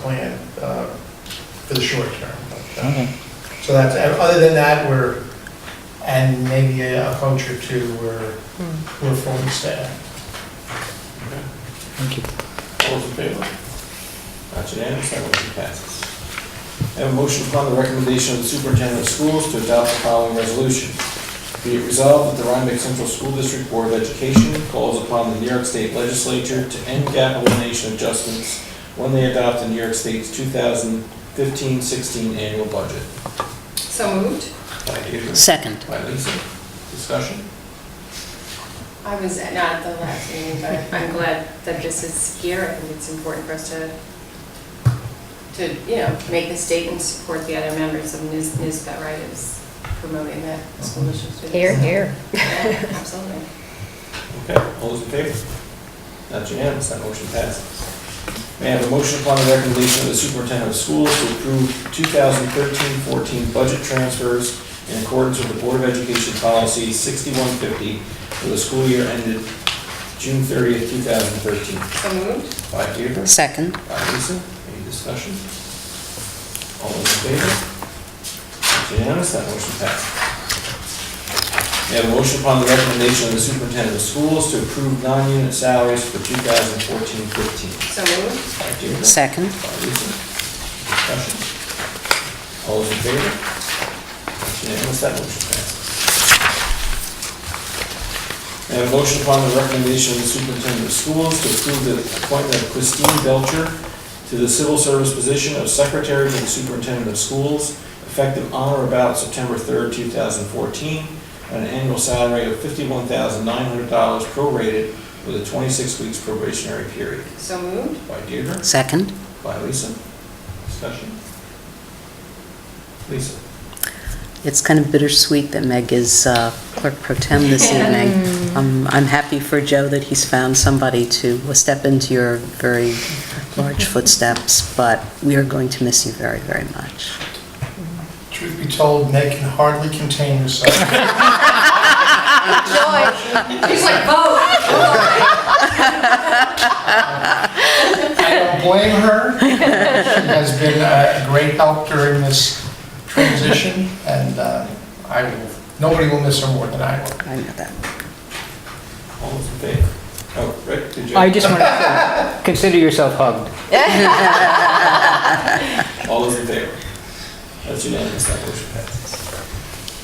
plan uh, for the short term. But, uh, Okay. So that's, and other than that, we're, and maybe a coach or two, we're, we're fully staffed. Thank you. All those in favor? That's unanimous, that motion passes. I have a motion upon the recommendation of the superintendent of schools to adopt the following resolution. Be it resolved that the Rhinebeck Central School District Board of Education calls upon the New York State Legislature to end gap elimination adjustments when they adopt the New York State's 2015-16 annual budget. So moved. By Adrian, Second. by Lisa. Discussion? I was not at the last meeting, but I'm glad that this is here. I think it's important for us to, to, you know, make the statement, support the other members of NIS- NISBA, right, is promoting that school district. students. Here, here. Yeah, Absolutely. Okay, all those in favor? That's unanimous, that motion passes. May I have a motion upon the recommendation of the superintendent of schools to approve 2013-14 budget transfers in accordance with the Board of Education Policy 6150 for the school year ended June 30th, 2013? So moved. By Deirdre? Second. By Lisa? Any discussion? All those in favor? It's unanimous, that motion passes. May I have a motion upon the recommendation of the superintendent of schools to approve non-unit salaries for 2014-15? So moved. By Deirdre? Second. By Lisa? Discussion? All those in favor? It's unanimous, that motion passes. May I have a motion upon the recommendation of the superintendent of schools to approve the appointment of Christine Belcher to the civil service position of secretary to the superintendent of schools, effective on or about September 3rd, 2014, at an annual salary of $51,900 prorated with a 26 weeks probationary period. So moved. By Deirdre? Second. By Lisa. Discussion. Lisa. It's kind of bittersweet that Meg is uh, clerk pro tem this evening. Um, I'm happy for Joe that he's found somebody to step into your very large footsteps, but we are going to miss you very, very much. Truth be told, Meg can hardly contain herself. Joy. She's like, vote. I don't blame her. She has been a great help during this transition, and uh, I will, nobody will miss her more than I will. I know that. All those in favor? Oh, Rick, did you? I just want to consider yourself hugged. All those in favor? That's unanimous, that motion passes.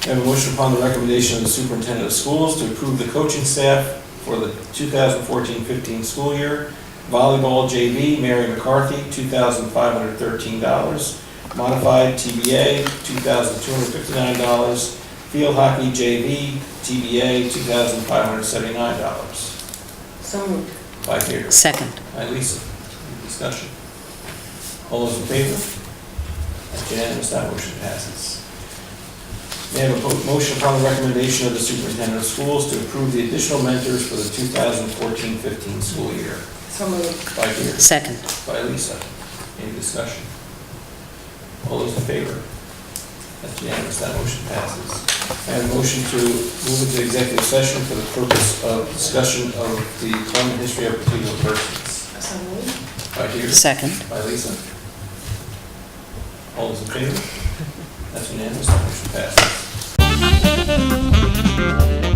I have a motion upon the recommendation of the superintendent of schools to approve the coaching staff for the 2014-15 school year. Volleyball JV, Mary McCarthy, $2,513. Modified TBA, $2,259. Field hockey JV, TBA, $2,579. So moved. By Deirdre. Second. By Lisa. Any Discussion. All those in favor? That's unanimous, that motion passes. May I have a po- motion upon the recommendation of the superintendent of schools to approve the additional mentors for the 2014-15 school year? So moved. By Deirdre. Second. By Lisa. Any discussion? All those in favor? That's unanimous, that motion passes. I have a motion to move into executive session for the purpose of discussion of the employment history of particular persons. So moved. By Deirdre. Second. By Lisa. All those in favor? That's unanimous, that motion passes.